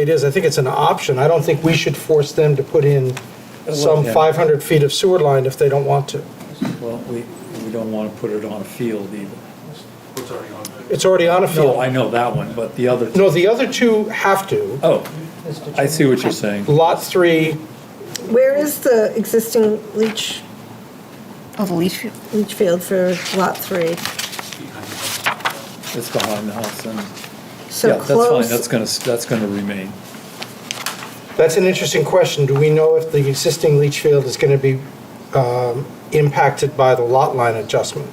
It is, I think it's an option. I don't think we should force them to put in some Yeah. 500 feet of sewer line if they don't want to. Well, we, we don't want to put it on a field either. What's already on there? It's already on a No, field. I know that one, but the other, No, the other two have to. oh, I see what you're saying. Lot 3, Where is the existing leach, Oh, the leach field. leach field for Lot 3? It's behind the house and, yeah, So that's fine, that's close, gonna, that's gonna remain. that's an interesting question. Do we know if the existing leach field is going to be um, impacted by the lot line adjustment?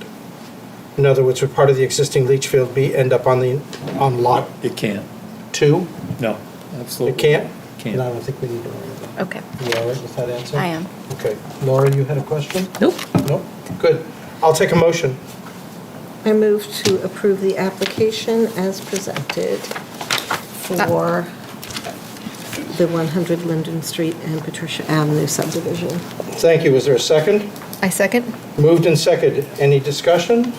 In other words, would part of the existing leach field be, end up on the, on Lot It can't, 2? no, absolutely. It can't? Can't. No, I don't think we need to worry about that. Okay. You all right with that answer? I am. Okay. Laura, you had a question? Nope. No? Good. I'll take a motion. I move to approve the application as presented for the 100 Linden Street and Patricia Avenue subdivision. Thank you. Is there a second? I second. Moved and seconded. Any discussion?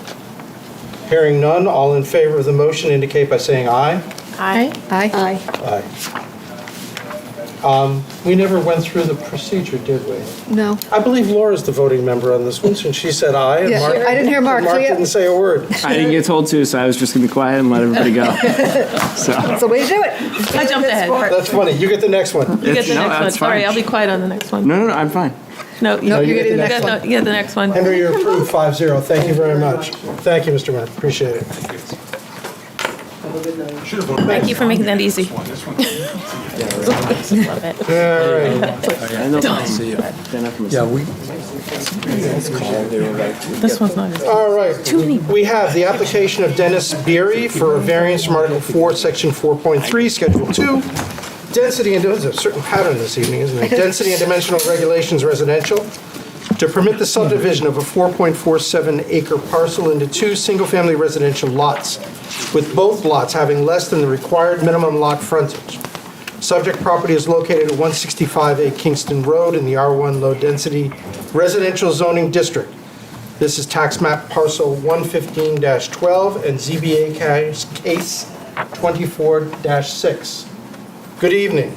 Hearing none, all in favor of the motion indicate by saying aye. Aye. Aye. Aye. Aye. Um, We never went through the procedure, did we? No. I believe Laura's the voting member on this one, since she said aye. and Yeah, Mark- I didn't hear Mark, and so Mark yeah. didn't say a word. I didn't get told to, so I was just gonna be quiet and let everybody go. So, That's the way to do it. I jumped ahead. That's funny. You get the next one. You get It's- the no, next one. that's Sorry, fine. I'll be quiet on the next one. no, no, no, I'm fine. No, No, you you get get the the next next- you get the next one. Henry, you're approved, 5-0. Thank you very much. Thank you, Mr. Mayor. Appreciate it. Should have voted. Thank you for making that easy. One, this one. Love it. All right. I know- Then I can miss- Yeah, we, This one's not as All right. We have the application of Dennis Beery for a variance from Article 4, Section 4.3, Schedule 2. Density and, there's a certain pattern this evening, isn't there? Density and dimensional regulations residential. To permit the subdivision of a 4.47 acre parcel into two single-family residential lots, with both lots having less than the required minimum lot frontage. Subject property is located at 165A Kingston Road in the R1 Low Density Residential Zoning District. This is tax map parcel 115-12 and ZBA case case 24-6. Good evening.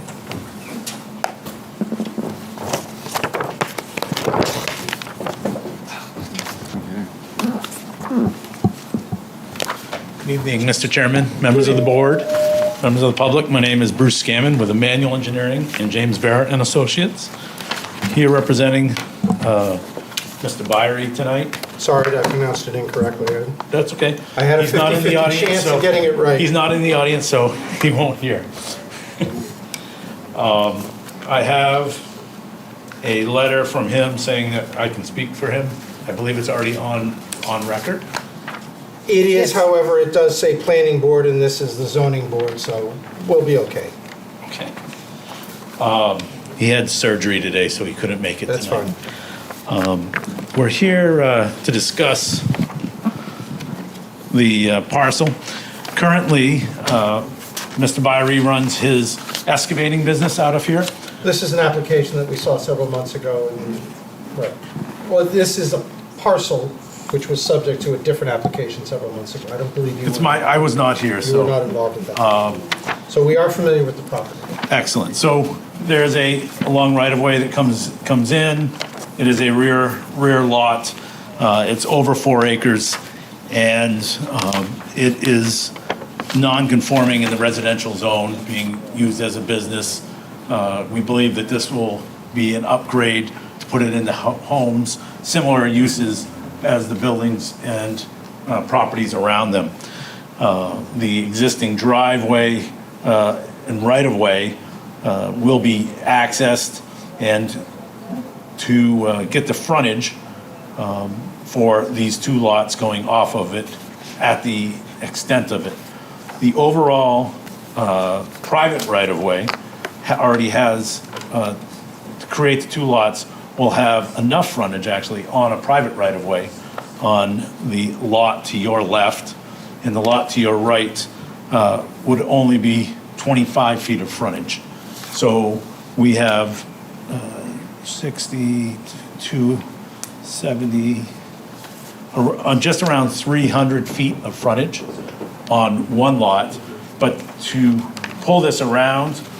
Good evening, Mr. Chairman, members of the board, members of the public. My name is Bruce Scammon with Emmanuel Engineering and James Barrett and Associates. Here representing uh, Mr. Byrie tonight. Sorry that I pronounced it incorrectly. That's okay. I had a He's not in the 50/50 audience, chance of so- getting it right. He's not in the audience, so he won't hear. Um, I have a letter from him saying that I can speak for him. I believe it's already on, on record. It is, however, it does say planning board and this is the zoning board, so we'll be okay. Okay. Um, He had surgery today, so he couldn't make it That's tonight. Um, fine. We're here uh, to discuss the uh, parcel. Currently, uh, Mr. Byrie runs his excavating business out of here. This is an application that we saw several months ago and, right. Well, this is a parcel which was subject to a different application several months ago. I don't believe you It's were- my, I was not here, you were not so, um, involved in that. So we are familiar with the property. excellent. So there's a a long right-of-way that comes, comes in. It is a rear, rear lot. Uh, It's over four acres, and um, it is non-conforming in the residential zone, being used as a business. Uh, We believe that this will be an upgrade to put it into ho- homes, similar uses as the buildings and uh, properties around them. Uh, The existing driveway uh, and right-of-way uh, will be accessed, and to uh, get the frontage um, for these two lots going off of it at the extent of it. The overall uh, private right-of-way ha- already has, uh, to create the two lots, will have enough frontage actually on a private right-of-way on the lot to your left, and the lot to your right uh, would only be 25 feet of frontage. So we have uh, 62, 70, ar- uh, just around 300 feet of frontage on one lot. But to pull this around